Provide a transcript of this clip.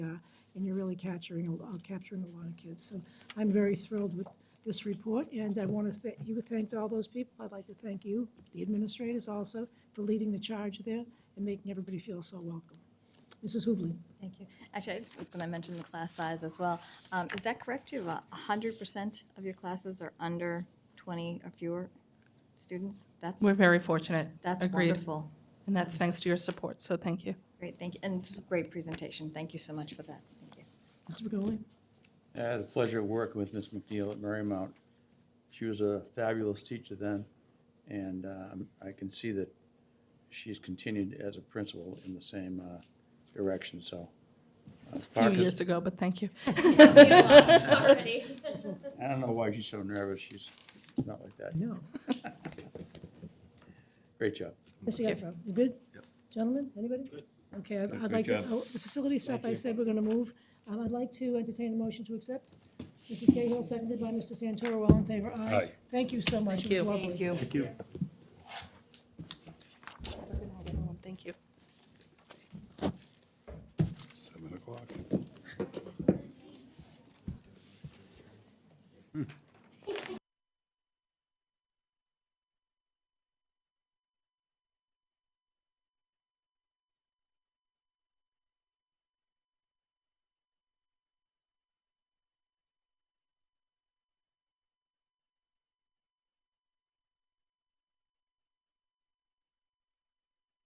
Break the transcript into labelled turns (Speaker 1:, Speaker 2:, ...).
Speaker 1: uh, and you're really capturing, a- uh, capturing a lot of kids. So I'm very thrilled with this report, and I want to, you thanked all those people. I'd like to thank you, the administrators also, for leading the charge there and making everybody feel so welcome. Mrs. Hubley?
Speaker 2: Thank you. Actually, I just was going to mention the class size as well. Um, Is that correct? You have hundred percent of your classes are under twenty or fewer students? That's,
Speaker 3: We're very fortunate.
Speaker 2: that's
Speaker 3: Agreed.
Speaker 2: wonderful.
Speaker 3: And that's thanks to your support, so thank you.
Speaker 2: Great, thank you. And great presentation. Thank you so much for that. Thank you.
Speaker 1: Mr. Begoli?
Speaker 4: I had the pleasure of working with Miss McNeil at Marymount. She was a fabulous teacher then, and um, I can see that she's continued as a principal in the same uh, direction, so. Uh,
Speaker 3: It was a few years ago, but thank you.
Speaker 5: already.
Speaker 4: I don't know why she's so nervous. She's not like that.
Speaker 1: No.
Speaker 4: Great job.
Speaker 1: Mr. Gattro, you good? Gentlemen, anybody? Good. Okay, I'd- I'd like to, oh, the facility stuff I said we're going to move. Um, I'd like to entertain a motion to accept. Mrs. Cahill, seconded by Mr. Santoro, all in favor? Aye. Thank you so much. It was
Speaker 3: you.
Speaker 1: lovely.
Speaker 2: you.